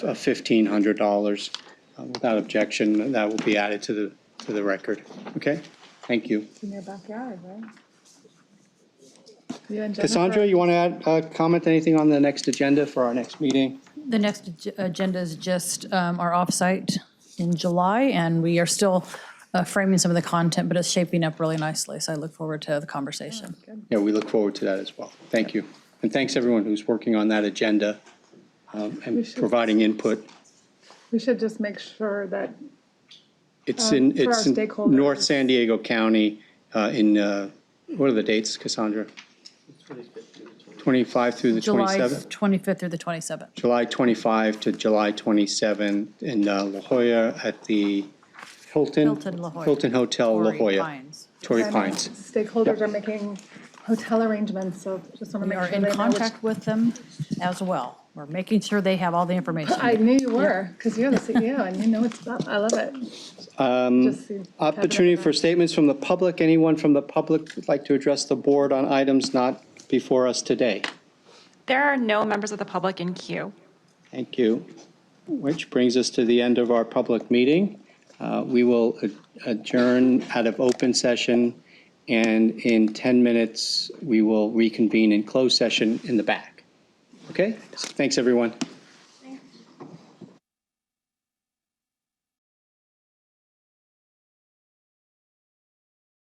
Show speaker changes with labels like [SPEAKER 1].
[SPEAKER 1] of uh, fifteen hundred dollars. Uh, Without objection, that will be added to the, to the record. Okay? Thank you.
[SPEAKER 2] in their backyard, right? You and
[SPEAKER 1] Cassandra,
[SPEAKER 2] Jennifer-
[SPEAKER 1] you want to add, uh, comment anything on the next agenda for our next meeting?
[SPEAKER 3] The next ag- agenda is just um, our offsite in July, and we are still uh, framing some of the content, but it's shaping up really nicely, so I look forward to the conversation.
[SPEAKER 1] Yeah, we look forward to that as well. Thank you. And thanks everyone who's working on that agenda um, and
[SPEAKER 2] should-
[SPEAKER 1] providing input.
[SPEAKER 2] We should just make sure that,
[SPEAKER 1] It's in,
[SPEAKER 2] Um, for our
[SPEAKER 1] it's in
[SPEAKER 2] stakeholders.
[SPEAKER 1] North San Diego County uh, in, uh, what are the dates, Cassandra? 25 through the
[SPEAKER 3] July
[SPEAKER 1] 27th?
[SPEAKER 3] 25th through the 27th.
[SPEAKER 1] July 25 to July 27 in uh, La Jolla at the Hilton.
[SPEAKER 3] Hilton La Jolla.
[SPEAKER 1] Hilton Hotel La
[SPEAKER 3] Torrey
[SPEAKER 1] Jolla.
[SPEAKER 3] Pines.
[SPEAKER 1] Torrey
[SPEAKER 2] I know
[SPEAKER 1] Pines.
[SPEAKER 2] stakeholders are making hotel arrangements, so just want to
[SPEAKER 3] We
[SPEAKER 2] make
[SPEAKER 3] are
[SPEAKER 2] sure they
[SPEAKER 3] in
[SPEAKER 2] know which.
[SPEAKER 3] contact with them as well. We're making sure they have all the information.
[SPEAKER 2] I knew you were, because you're the CEO and you know what's up. I love it. Just see-
[SPEAKER 1] Um, Opportunity for statements from the public. Anyone from the public would like to address the board on items not before us today?
[SPEAKER 4] There are no members of the public in queue.
[SPEAKER 1] Thank you. Which brings us to the end of our public meeting. Uh, We will adjourn out of open session, and in 10 minutes, we will reconvene in closed session in the back. Okay? Thanks, everyone.